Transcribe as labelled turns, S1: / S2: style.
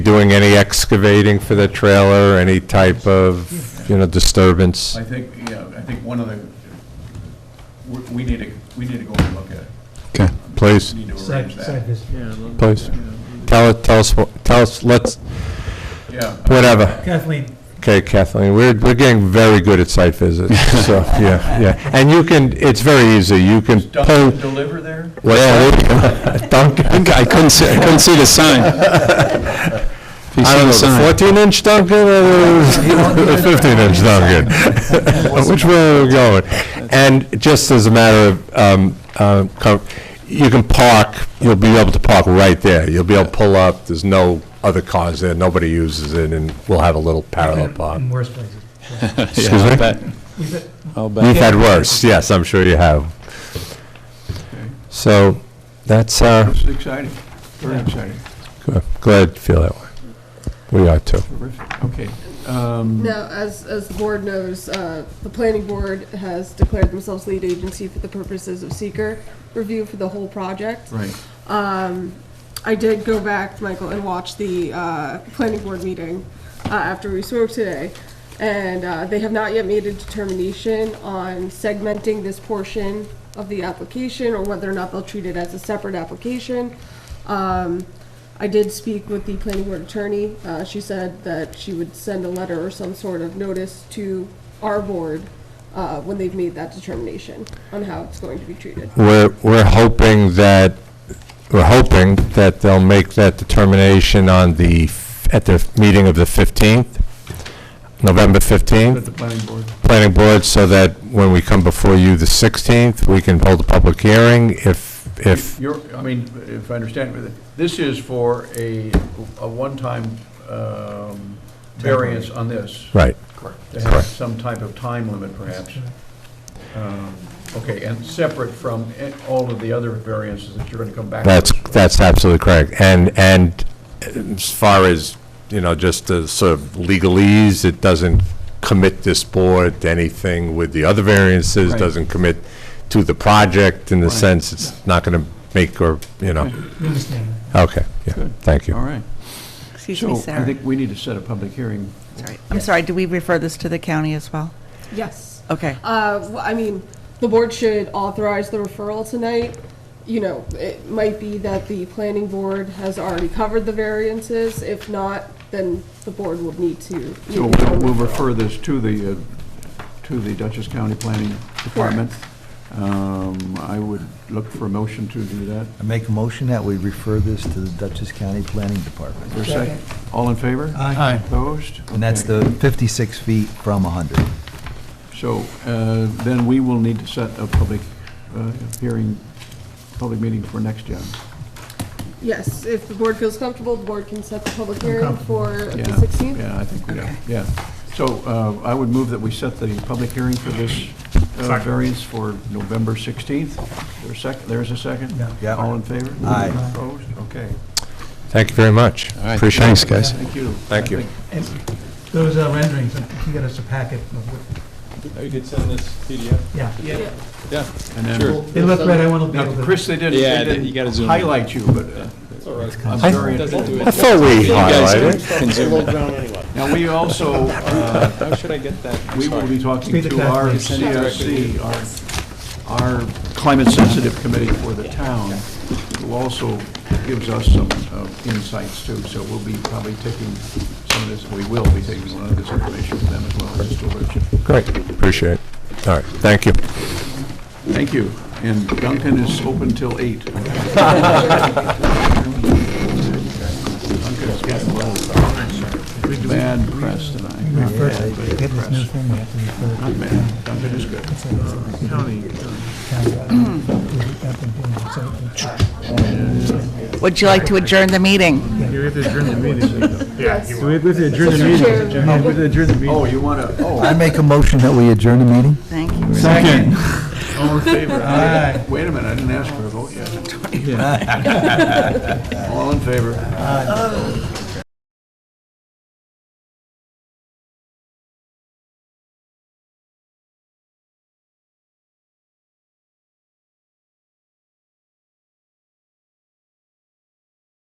S1: doing any excavating for the trailer, any type of, you know, disturbance?
S2: I think, yeah, I think one of the, we- we need to, we need to go and look at it.
S1: Okay, please,
S2: We need to
S3: Site
S2: arrange
S3: site
S2: that.
S3: visit.
S1: please. Tell us, tell us, what- tell us, let's,
S2: Yeah.
S1: whatever.
S3: Kathleen,
S1: Okay, Kathleen, we're, we're getting very good at site visits, so, yeah, yeah. And you can, it's very easy, you can
S2: Does Dunkin'
S1: pull.
S2: deliver there?
S1: Yeah, there you go. Dunkin'.
S4: I couldn't see, I couldn't see the sign. If you
S1: I
S4: see
S1: don't
S4: the
S1: know,
S4: sign.
S1: the 14-inch Dunkin' or the 15-inch Dunkin'? Which way are we going? And just as a matter of, um, uh, co- you can park, you'll be able to park right there. You'll be able to pull up, there's no other cars there, nobody uses it, and we'll have a little parallel park.
S3: in worse places.
S4: Yeah,
S1: Excuse me?
S4: I'll bet.
S3: We've got-
S4: I'll
S1: You've
S4: bet.
S1: had worse, yes, I'm sure you have. So, that's, uh,
S2: This is exciting, very exciting,
S1: good. glad to feel that way. We are too.
S2: terrific, okay. um,
S5: Now, as, as the board knows, uh, the planning board has declared themselves lead agency for the purposes of seeker review for the whole project.
S2: Right,
S5: Um, I did go back, Michael, and watch the uh, planning board meeting uh, after we spoke today, and uh, they have not yet made a determination on segmenting this portion of the application, or whether or not they'll treat it as a separate application. Um, I did speak with the planning board attorney. Uh, She said that she would send a letter or some sort of notice to our board uh, when they've made that determination on how it's going to be treated.
S1: We're, we're hoping that, we're hoping that they'll make that determination on the, f- at the meeting of the 15th, November
S2: at
S1: 15th,
S2: the planning board.
S1: planning board, so that when we come before you the 16th, we can hold a public hearing if, if,
S2: You're, I mean, if I understand, this is for a, a one-time um, variance on this.
S1: right.
S2: Correct. To have some type of time limit perhaps. Um, Okay, and separate from eh, all of the other variances that you're going to come back. to
S1: That's,
S2: us with.
S1: that's absolutely correct. And, and as far as, you know, just the sort of legalese, it doesn't commit this board to anything with the other variances,
S2: Right.
S1: doesn't commit to the project in the
S2: Right.
S1: sense it's not going to make or, you know,
S3: we understand that.
S1: okay, yeah,
S2: Good.
S1: thank you.
S2: All right.
S6: Excuse me,
S2: So I
S6: Sarah.
S2: think we need to set a public hearing.
S6: Sorry. I'm sorry, do we refer this to the county as well?
S5: Yes.
S6: Okay.
S5: Uh, w- I mean, the board should authorize the referral tonight. You know, it might be that the planning board has already covered the variances. If not, then the board would need to. make
S2: So
S5: its
S2: we'll
S5: own
S2: we'll
S5: referral.
S2: refer this to the, uh, to the Dutchess County Planning Department. Um, I would look for a motion to do that.
S7: I make a motion that we refer this to the Dutchess County Planning Department.
S2: Is there a second? All in favor?
S3: Aye.
S2: Opposed?
S7: And that's
S2: Okay.
S7: the 56 feet from 100.
S2: So uh, then we will need to set a public uh, hearing, public meeting for next year.
S5: Yes, if the board feels comfortable, the board can set the public hearing
S3: comfortable.
S5: for the
S2: Yeah,
S5: 16th.
S2: Yeah, I think, we
S6: Okay.
S2: yeah. So uh, I would move that we set the public hearing for this uh, variance for November 16th. There's sec- There's a second?
S3: Yeah.
S7: Yeah.
S2: All in favor?
S7: Aye.
S2: Opposed? Okay.
S1: Thank you very much. Appreciate it.
S4: Thanks, guys.
S2: Thank you.
S1: Thank you.
S3: And those uh, renderings, you got us a packet of what,
S8: Oh, you could send this PDF?
S3: yeah.
S2: And then-
S8: Sure.
S3: They look right, I want to be able
S2: Now,
S3: to.
S2: Chris, they didn't,
S4: Yeah,
S2: they
S4: they- you gotta
S2: didn't
S4: zoom in.
S2: highlight you, but uh,
S8: It's all right.
S2: I'm
S1: I-
S2: very
S8: Doesn't do
S2: important.
S8: it.
S1: I thought we
S4: You guys
S1: highlighted it.
S4: can zoom in.
S2: Now, we also, uh,
S8: How should I get that?
S2: we will be talking
S3: Speak
S2: to
S3: to
S2: our
S3: Kathleen.
S2: CRC, our, our climate-sensitive committee for the town, who also gives us some uh, insights too, so we'll be probably taking some of this, we will be taking a lot of this information from them as well, just to let you.
S1: Great, appreciate it. All right, thank you.
S2: Thank you, and Duncan is open till eight. Duncan's getting a little bad press tonight. Not bad, but
S3: Get this new thing, we have to refer
S2: not bad. Duncan is good.
S3: to.
S6: Would you like to adjourn the meeting?
S5: Mr. Chair,
S2: Oh, you want to, oh.
S7: I make a motion that we adjourn the meeting?
S6: Thank you.
S3: Second.
S2: All in favor?
S3: Aye.
S2: Wait a minute, I didn't ask for a vote yet. All in favor?